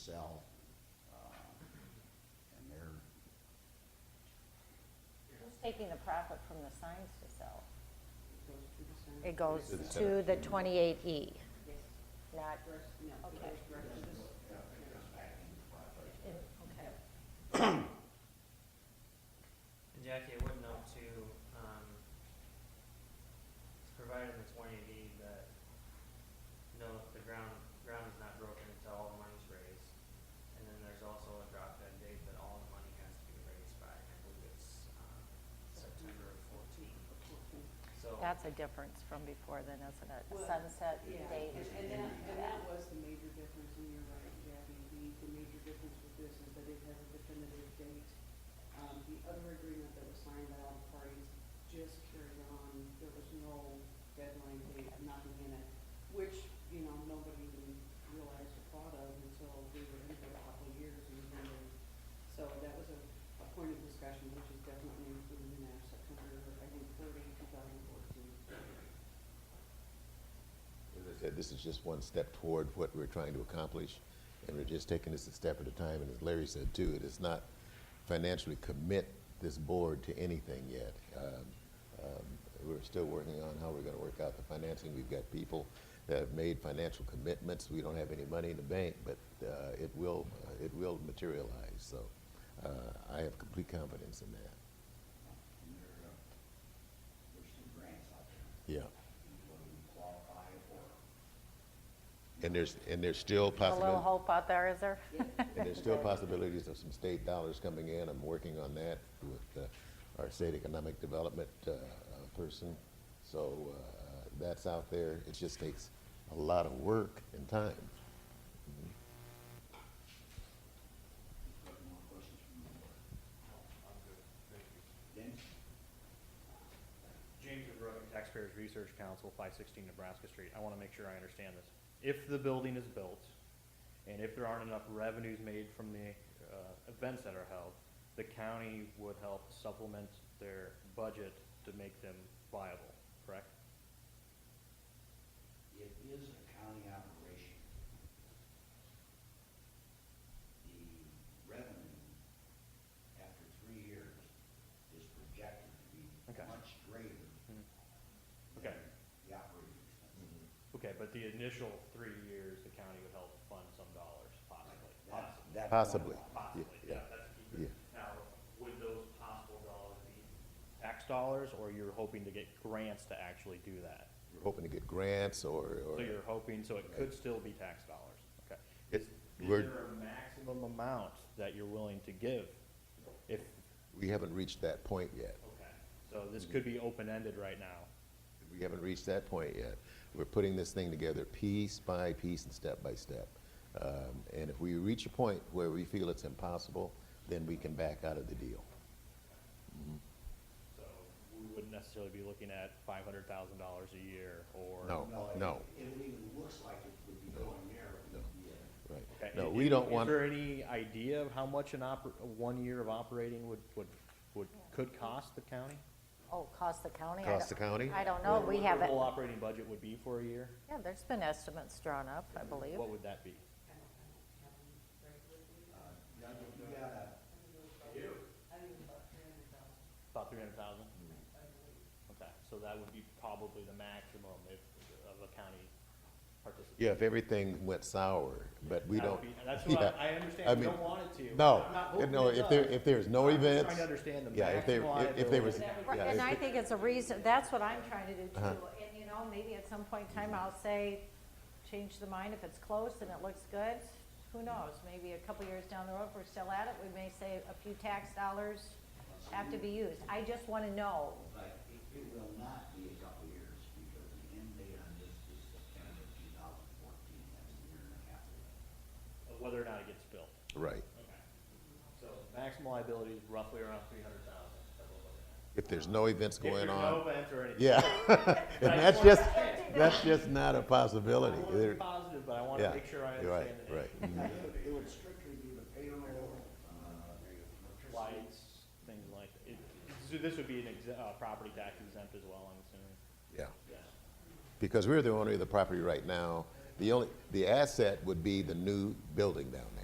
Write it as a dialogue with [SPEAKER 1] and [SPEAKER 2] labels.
[SPEAKER 1] sell, uh, and they're,
[SPEAKER 2] Who's taking the profit from the signs to sell?
[SPEAKER 3] goes to the center.
[SPEAKER 2] It goes
[SPEAKER 4] To the
[SPEAKER 2] to the
[SPEAKER 4] center.
[SPEAKER 2] 28E,
[SPEAKER 3] Yes,
[SPEAKER 2] not,
[SPEAKER 3] first, no, it
[SPEAKER 2] Okay.
[SPEAKER 3] goes direct to the center.
[SPEAKER 2] in- okay.
[SPEAKER 5] And Jackie, I would note too, um, it's provided in the twenty D that, no, the ground, ground is not broken until all the money's raised. And then there's also a drop dead date that all the money has to be raised by, and I believe it's, um, September of fourteen. So,
[SPEAKER 2] That's a difference from before then, isn't it? A
[SPEAKER 3] Well,
[SPEAKER 2] sunset
[SPEAKER 3] Yeah,
[SPEAKER 2] date.
[SPEAKER 3] and, and that, and that was the major difference, and you're right, Gabby, the, the major difference with this is that it has a definitive date. Um, the other agreement that was signed by all the parties just carried on, there was no deadline date, nothing in it, which, you know, nobody even realized or thought of until we were in it for a couple of years, and then, they- so that was a, a point of discussion, which is definitely included in our September, I think, thirty, two thousand fourteen.
[SPEAKER 4] As I said, this is just one step toward what we're trying to accomplish, and we're just taking this a step at a time. And as Larry said too, it is not financially commit this board to anything yet. Um, um, We're still working on how we're going to work out the financing. We've got people that have made financial commitments. We don't have any money in the bank, but uh, it will, uh, it will materialize. So uh, I have complete confidence in that.
[SPEAKER 1] and they're, uh, there's some grants out there,
[SPEAKER 4] Yeah.
[SPEAKER 1] people who qualify for.
[SPEAKER 4] And there's, and there's
[SPEAKER 2] A
[SPEAKER 4] still
[SPEAKER 2] little
[SPEAKER 4] possibility.
[SPEAKER 2] hope out there, is there?
[SPEAKER 4] And there's still possibilities of some state dollars coming in. I'm working on that with uh, our state economic development uh, uh, person. So uh, that's out there. It just takes a lot of work and time.
[SPEAKER 1] Any more questions from the board?
[SPEAKER 5] um,
[SPEAKER 6] I'm good, thank you.
[SPEAKER 1] Dennis?
[SPEAKER 6] James Monroe, Taxpayers Research Council, five sixteen Nebraska Street. I want to make sure I understand this. If the building is built, and if there aren't enough revenues made from the uh, events that are held, the county would help supplement their budget to make them viable, correct?
[SPEAKER 1] It is a county operation. The revenue after three years is projected to be
[SPEAKER 6] Okay.
[SPEAKER 1] much greater
[SPEAKER 6] Hmm.
[SPEAKER 1] than
[SPEAKER 6] Okay.
[SPEAKER 1] the operating expenses.
[SPEAKER 6] Okay, but the initial three years, the county would help fund some dollars, possibly,
[SPEAKER 1] That's-
[SPEAKER 6] possibly.
[SPEAKER 1] that's one
[SPEAKER 4] Possibly.
[SPEAKER 1] of
[SPEAKER 6] Mm-hmm. Possibly,
[SPEAKER 4] Yeah,
[SPEAKER 6] yeah, that's a
[SPEAKER 4] yeah.
[SPEAKER 6] key. Now, would those possible dollars be tax dollars, or you're hoping to get grants to actually do that?
[SPEAKER 4] We're hoping to get grants or, or
[SPEAKER 6] So you're hoping, so it could still be tax dollars, okay?
[SPEAKER 4] It-
[SPEAKER 6] Is is
[SPEAKER 4] we're-
[SPEAKER 6] there a maximum amount that you're willing to give? If,
[SPEAKER 4] we haven't reached that point yet.
[SPEAKER 6] okay, so this could be open-ended right now.
[SPEAKER 4] We haven't reached that point yet. We're putting this thing together piece by piece and step by step. Um, And if we reach a point where we feel it's impossible, then we can back out of the deal.
[SPEAKER 6] So we wouldn't necessarily be looking at five hundred thousand dollars a year, or.
[SPEAKER 4] No.
[SPEAKER 1] it-
[SPEAKER 4] no.
[SPEAKER 1] It even looks like it would be going there, it would be uh, a
[SPEAKER 6] Okay,
[SPEAKER 4] Right. No,
[SPEAKER 6] and-
[SPEAKER 4] we
[SPEAKER 6] and
[SPEAKER 4] don't want.
[SPEAKER 6] Is there any idea of how much an oper, one year of operating would, would, would, could cost the county?
[SPEAKER 2] Oh, cost the county? I
[SPEAKER 4] Cost
[SPEAKER 2] don't-
[SPEAKER 4] the county?
[SPEAKER 2] I don't know,
[SPEAKER 6] What
[SPEAKER 2] we
[SPEAKER 6] their
[SPEAKER 2] haven't,
[SPEAKER 6] Whole operating budget would be for a year?
[SPEAKER 2] yeah, there's been estimates drawn up, I believe.
[SPEAKER 6] What would that be?
[SPEAKER 1] Now, you you gotta,
[SPEAKER 6] About three hundred thousand?
[SPEAKER 4] Mm.
[SPEAKER 6] Okay, so that would be probably the maximum if, of a county participant.
[SPEAKER 4] Yeah, if everything went sour, but we
[SPEAKER 6] That
[SPEAKER 4] don't.
[SPEAKER 6] would be- That's what
[SPEAKER 4] yeah.
[SPEAKER 6] I, I
[SPEAKER 4] I
[SPEAKER 6] understand, we
[SPEAKER 4] mean,
[SPEAKER 6] don't want it to.
[SPEAKER 4] No,
[SPEAKER 6] I'm not hoping
[SPEAKER 4] no,
[SPEAKER 6] it
[SPEAKER 4] if there,
[SPEAKER 6] does.
[SPEAKER 4] if there's no
[SPEAKER 6] I'm just
[SPEAKER 4] events.
[SPEAKER 6] Trying to understand the
[SPEAKER 4] yeah, if there-
[SPEAKER 6] maximum
[SPEAKER 4] if- if there was-
[SPEAKER 6] liability.
[SPEAKER 2] Right,
[SPEAKER 4] yeah,
[SPEAKER 2] And
[SPEAKER 4] if
[SPEAKER 2] I
[SPEAKER 4] it-
[SPEAKER 2] think it's a reason, that's what I'm trying to do too, and you know, maybe at some point in time I'll say, change the mind if it's close and it looks good, who knows? Maybe a couple years down the road, if we're still at it, we may say a few tax dollars have to be used. I just wanna know,
[SPEAKER 1] but it it will not be a couple years, because the end date on this is September two thousand fourteen, that's a year and a half away.
[SPEAKER 6] Of Whether or not it gets built.
[SPEAKER 4] Right,
[SPEAKER 6] Okay. So maximum liability is roughly around three hundred thousand.
[SPEAKER 4] if there's no events going
[SPEAKER 6] If there's
[SPEAKER 4] on.
[SPEAKER 6] no events or anything.
[SPEAKER 4] Yeah,
[SPEAKER 6] But
[SPEAKER 4] and
[SPEAKER 6] I
[SPEAKER 4] that's
[SPEAKER 6] wanna-
[SPEAKER 4] just, that's just not a
[SPEAKER 6] I
[SPEAKER 4] possibility.
[SPEAKER 6] want to be
[SPEAKER 4] There-
[SPEAKER 6] positive, but I want to
[SPEAKER 4] Yeah,
[SPEAKER 6] make sure I
[SPEAKER 4] you're right,
[SPEAKER 6] understand the
[SPEAKER 4] right. Mhm.
[SPEAKER 1] It would- It would strictly be the payroll, uh, electricity.
[SPEAKER 6] lights, things like, it, so this would be an exe- uh, property tax exempt as well, I'm assuming?
[SPEAKER 4] Yeah,
[SPEAKER 6] Yes.
[SPEAKER 4] because we're the owner of the property right now. The only, the asset would be the new building down